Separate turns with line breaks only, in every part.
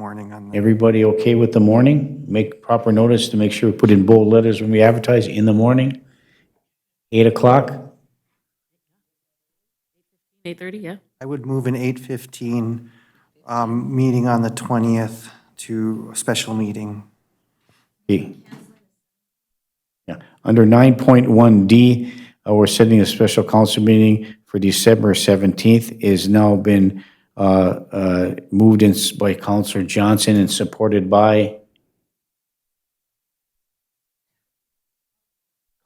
morning on the,
Everybody okay with the morning? Make proper notice to make sure we put in bold letters when we advertise in the morning? 8 o'clock?
8:30, yeah.
I would move an 8:15 um, meeting on the 20th to a special meeting.
Okay. Yeah. Under 9.1D, uh, we're setting a special council meeting for December 17th. Is now been uh, uh, moved in s- by Counselor Johnson and supported by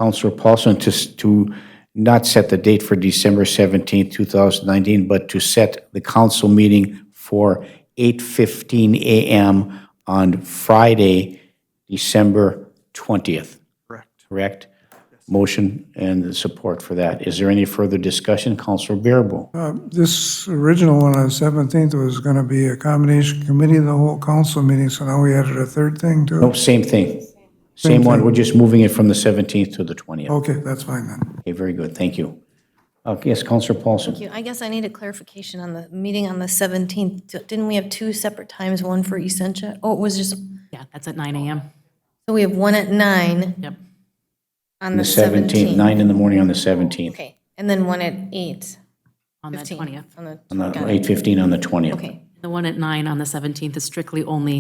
Counselor Paulson to, s- to not set the date for December 17th, 2019, but to set the council meeting for 8:15 a.m. on Friday, December 20th,
Correct.
correct? Motion and the support for that. Is there any further discussion? Counselor Bearable?
This original one on 17th was going to be a combination committee of the whole council meeting, so now we added a third thing to
No,
it?
same thing. Same one, we're just moving it from the 17th to the 20th.
Okay, that's fine then.
Okay, very good, thank you. Uh, Yes, Counselor Paulson?
you. I guess I need a clarification on the meeting on the 17th. D- Didn't we have two separate times, one for Essentia? Oh, it was just,
Yeah, that's at nine AM.
so we have one at nine
Yep.
on the
17th,
17th.
9 in the morning on the 17th,
Okay, and then one at eight.
On the
15,
20th.
On the,
on the
got it.
8:15 on the 20th.
Okay,
The one at nine on the 17th is strictly only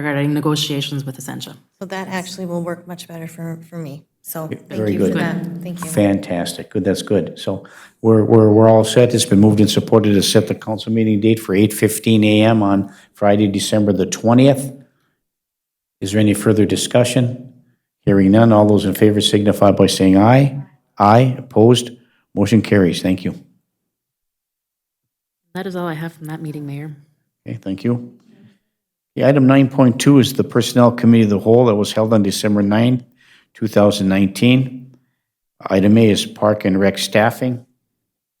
regarding negotiations with Essentia.
so that actually will work much better for, for me. So thank
very
you for
good.
that. Thank you.
Fantastic, good, that's good. So we're, we're, we're all set, it's been moved and supported to set the council meeting date for 8:15 a.m. on Friday, December the 20th. Is there any further discussion? Hearing none, all those in favor signify by saying aye. Aye, opposed, motion carries, thank you.
That is all I have from that meeting, Mayor.
Okay, thank you. The item 9.2 is the Personnel Committee of the Whole that was held on December 9, 2019. Item A is Park and Rec Staffing.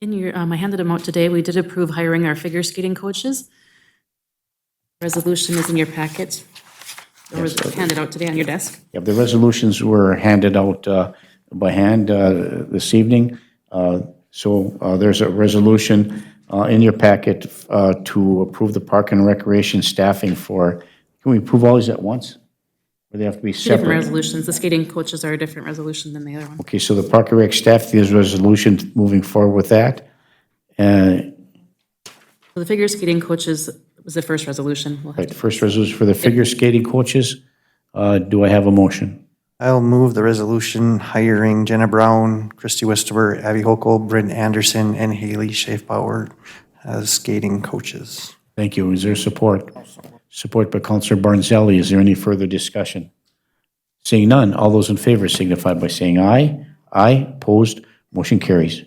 In your, um, I handed them out today. We did approve hiring our figure skating coaches. Resolution is in your packet. Or was handed out today on your desk.
Yeah, the resolutions were handed out uh, by hand uh, this evening. Uh, So uh, there's a resolution uh, in your packet uh, to approve the Park and Recreation staffing for, can we approve all these at once? Or they have to be
Two different
separate?
resolutions. The skating coaches are a different resolution than the other one.
Okay, so the Park and Rec staff, there's a resolution moving forward with that. Uh,
So The figure skating coaches was the first resolution. We'll have
Right, first resolution for the figure skating coaches. Uh, Do I have a motion?
I'll move the resolution hiring Jenna Brown, Christy Westover, Abby Hokel, Bryn Anderson, and Haley Schaefbauer as skating coaches.
Thank you. Is there support? Support by Counselor Barnzelli. Is there any further discussion? Seeing none, all those in favor signify by saying aye. Aye, opposed, motion carries.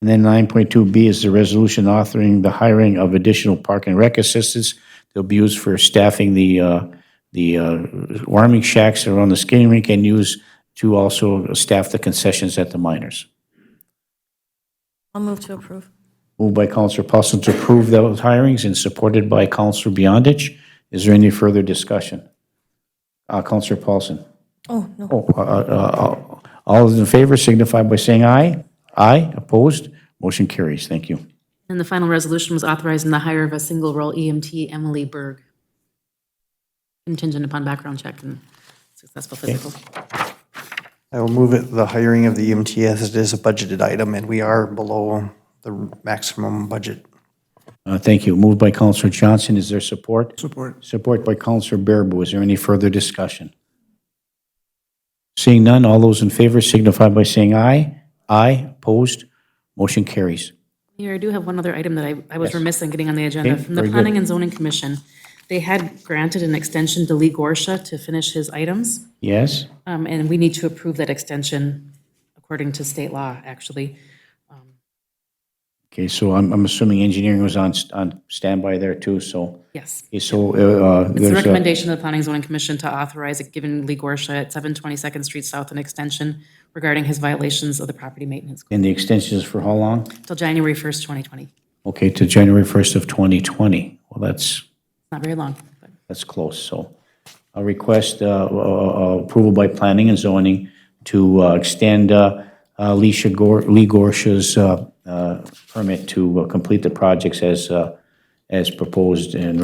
And then 9.2B is the resolution authoring the hiring of additional park and rec assistants. They'll be used for staffing the, uh, the uh, warming shacks around the skating rink and used to also staff the concessions at the miners.
I'll move to approve.
Moved by Counselor Paulson to approve those hirings and supported by Counselor Beyondich. Is there any further discussion? Uh, Counselor Paulson.
Oh, no,
Oh, uh, uh, uh, All those in favor signify by saying aye. Aye, opposed, motion carries. Thank you.
And the final resolution was authorizing the hire of a single role EMT, Emily Berg, contingent upon background check and successful physical.
I will move it, the hiring of the E EMT as it is a budgeted item, and we are below the maximum budget.
Uh, Thank you. Moved by Counselor Johnson. Is there support?
Support.
Support by Counselor Bearable. Is there any further discussion? Seeing none, all those in favor signify by saying aye. Aye, opposed, motion carries.
Mayor, I do have one other item that I, I was remiss in getting on the agenda.
Okay,
From the
very good.
Planning and Zoning Commission, they had granted an extension to Lee Gorsha to finish his items.
Yes?
Um, and we need to approve that extension according to state law, actually.
Okay, so I'm, I'm assuming engineering was on, st- on standby there too, so,
Yes.
okay, so, uh, uh,
It's the
there's a,
recommendation of the Planning and Zoning Commission to authorize it, given Lee Gorsha at 722nd Street South an extension regarding his violations of the property maintenance code
and the extensions for how long?
till January 1st, 2020. It's
Okay, to January 1st of 2020. Well, that's,
Not very long, but
that's close, so. A request, uh, uh, uh, approval by planning and zoning to, uh, extend, uh, uh, Leisha Gor, Lee Gorsh's, uh, uh, permit to uh, complete the projects as, uh, as proposed and